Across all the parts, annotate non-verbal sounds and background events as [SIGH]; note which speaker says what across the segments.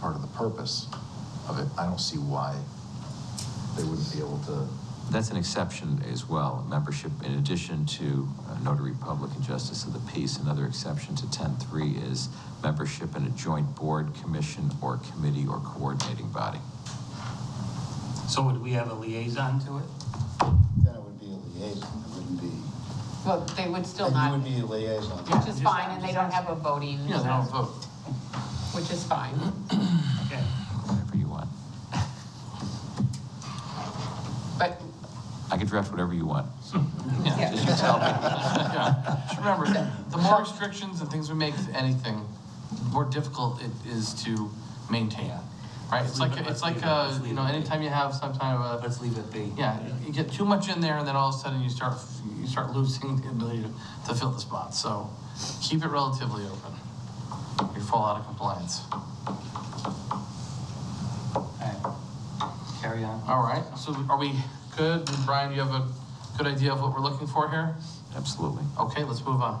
Speaker 1: part of the purpose of it. I don't see why they wouldn't be able to,
Speaker 2: That's an exception as well, membership in addition to uh, notary public and justice of the peace. Another exception to 10.3 is membership in a joint board, commission, or committee or coordinating body.
Speaker 3: So would we have a liaison to it?
Speaker 4: Then it would be a liaison, it wouldn't be,
Speaker 5: Well, they would still
Speaker 4: and you
Speaker 5: not,
Speaker 4: would be a liaison.
Speaker 5: which is fine, and they don't have a voting,
Speaker 3: Yeah, they don't vote.
Speaker 5: which is fine.
Speaker 3: Okay.
Speaker 2: Whatever you want.
Speaker 5: But
Speaker 2: I can draft whatever you want.
Speaker 5: Yeah.
Speaker 2: Yeah, just you tell me.
Speaker 6: [LAUGHS] Yeah. Just remember, the more restrictions and things we make to anything, the more difficult it is to maintain. Right? It's like, it's like, uh, you know, anytime you have some kind of a,
Speaker 3: Let's leave it be.
Speaker 6: yeah, you get too much in there and then all of a sudden you start, you start losing the ability to- to fill the spots. So keep it relatively open. You fall out of compliance.
Speaker 3: Okay. Carry on.
Speaker 6: All right, so are we good? Brian, you have a good idea of what we're looking for here?
Speaker 2: Absolutely.
Speaker 6: Okay, let's move on.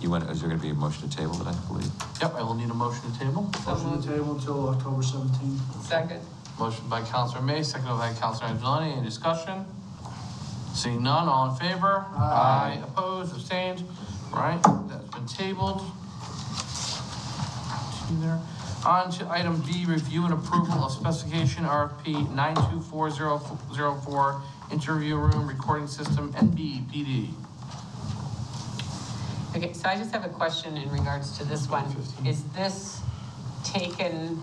Speaker 2: You want, is there going to be a motion to table that I believe?
Speaker 6: Yep, I will need a motion to table.
Speaker 5: so
Speaker 7: Motion
Speaker 5: moved.
Speaker 7: to table until October seventeenth.
Speaker 5: um, Second.
Speaker 6: Motion by Counselor May, seconded by Counselor Angeloni. Any discussion? Seeing none, all in favor? Aye. Opposed, abstained? All Right, that's been tabled. Two there. On to item B, review and approval of specification RFP 924004, interview room, recording system, NBPD.
Speaker 5: Okay, so I just have a question in regards to this one. Is this taken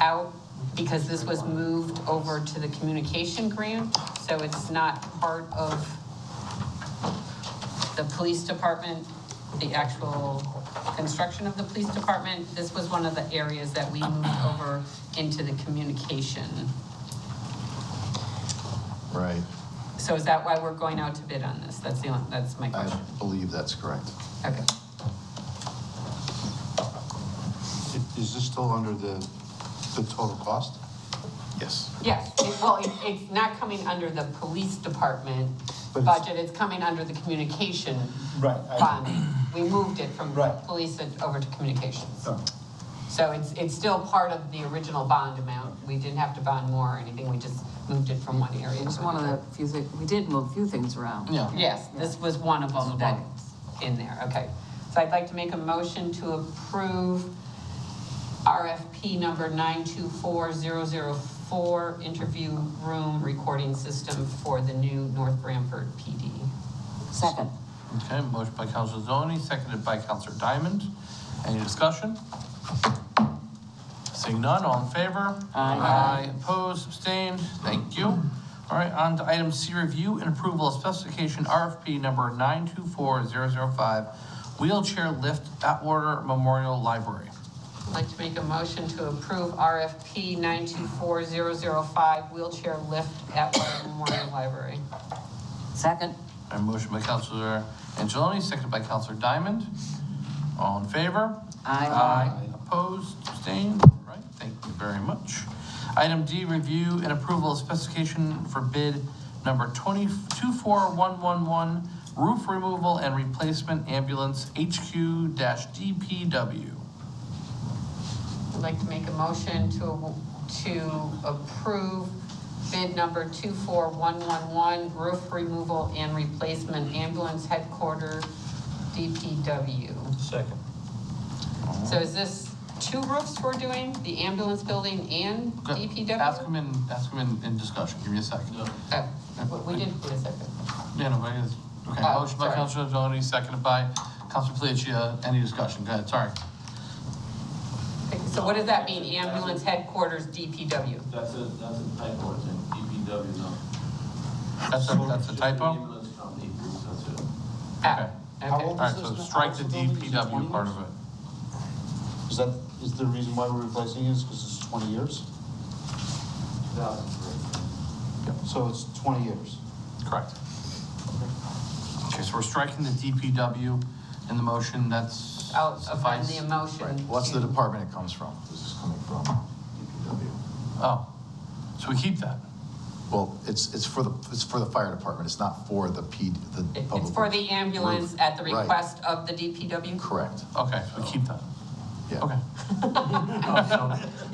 Speaker 5: out because this was moved over to the communication grant? So it's not part of the police department, the actual construction of the police department? This was one of the areas that we moved over into the communication.
Speaker 1: right?
Speaker 5: So is that why we're going out to bid on this? That's the, only- that's my
Speaker 1: I
Speaker 5: question.
Speaker 1: believe that's correct.
Speaker 5: Okay.
Speaker 4: Is this still under the, the total cost?
Speaker 1: Yes.
Speaker 5: Yes, it- well, it- it's not coming under the police department
Speaker 4: But it's-
Speaker 5: budget, it's coming under the communication
Speaker 4: Right, I-
Speaker 5: fund. We moved it from
Speaker 4: Right.
Speaker 5: police and over to communications.
Speaker 4: Oh.
Speaker 5: So it's, it's still part of the original bond amount. We didn't have to bond more or anything, we just moved it from one area
Speaker 8: It's
Speaker 5: to
Speaker 8: one of
Speaker 5: another.
Speaker 8: the few things, we did move a few things around.
Speaker 6: Yeah.
Speaker 5: Yes, this was one of them
Speaker 6: This is one.
Speaker 5: that's in there, okay. So I'd like to make a motion to approve RFP number 924004, interview room recording system for the new North Branford PD.
Speaker 8: Second.
Speaker 6: Okay, motion by Counselor Zoni, seconded by Counselor Diamond. Any discussion? Seeing none, all in favor?
Speaker 8: Aye.
Speaker 6: opposed, abstained, thank you. All right, on to item C, review and approval of specification RFP number 924005, wheelchair lift Atwater Memorial Library.
Speaker 5: I'd like to make a motion to approve RFP 924005, wheelchair lift at Water Memorial Library.
Speaker 8: Second.
Speaker 6: And motion by Counselor Angeloni, seconded by Counselor Diamond. All in favor?
Speaker 8: Aye.
Speaker 6: Opposed, abstained, right, thank you very much. Item D, review and approval of specification for bid number 224111, roof removal and replacement ambulance HQ-DPW.
Speaker 5: I'd like to make a motion to, to approve bid number 24111, roof removal and replacement ambulance headquarters DPW.
Speaker 3: Second.
Speaker 5: So is this two roofs we're doing, the ambulance building and
Speaker 6: Ask
Speaker 5: DPW?
Speaker 6: him in, ask him in, in discussion, give me a second.
Speaker 5: Oh, we- We did, wait a second.
Speaker 6: Yeah, no, but it is, okay,
Speaker 5: Oh,
Speaker 6: motion by
Speaker 5: sorry.
Speaker 6: Counselor Angeloni, seconded by Counselor Palacio, any discussion, go ahead, sorry.
Speaker 5: So what does that mean, ambulance headquarters DPW?
Speaker 9: That's a, that's a typo, it's in DPW, no.
Speaker 6: That's a, that's a typo?
Speaker 9: Ambulance company, that's it.
Speaker 5: Ah,
Speaker 6: Okay.
Speaker 4: How
Speaker 5: Okay,
Speaker 4: old
Speaker 6: All right,
Speaker 4: is this?
Speaker 6: so
Speaker 4: now?
Speaker 6: strike
Speaker 4: How
Speaker 6: the
Speaker 4: old is it? Is it 20
Speaker 6: DPW part of
Speaker 4: years?
Speaker 6: it.
Speaker 4: Is that, is the reason why we're replacing it is because it's twenty years?
Speaker 9: 2003.
Speaker 4: So it's twenty years.
Speaker 6: Correct. Okay, so we're striking the DPW in the motion, that's
Speaker 5: I'll amend
Speaker 6: suffice?
Speaker 5: the motion.
Speaker 1: What's the
Speaker 5: to-
Speaker 1: department it comes from? This is coming from DPW.
Speaker 6: Oh, so we keep that?
Speaker 1: Well, it's, it's for the, it's for the fire department. It's not for the P, the
Speaker 5: It-
Speaker 1: public.
Speaker 5: It's for the ambulance at the
Speaker 1: Right.
Speaker 5: request of the DPW?
Speaker 1: Correct,
Speaker 6: Okay, we keep that,
Speaker 1: yeah.
Speaker 6: okay.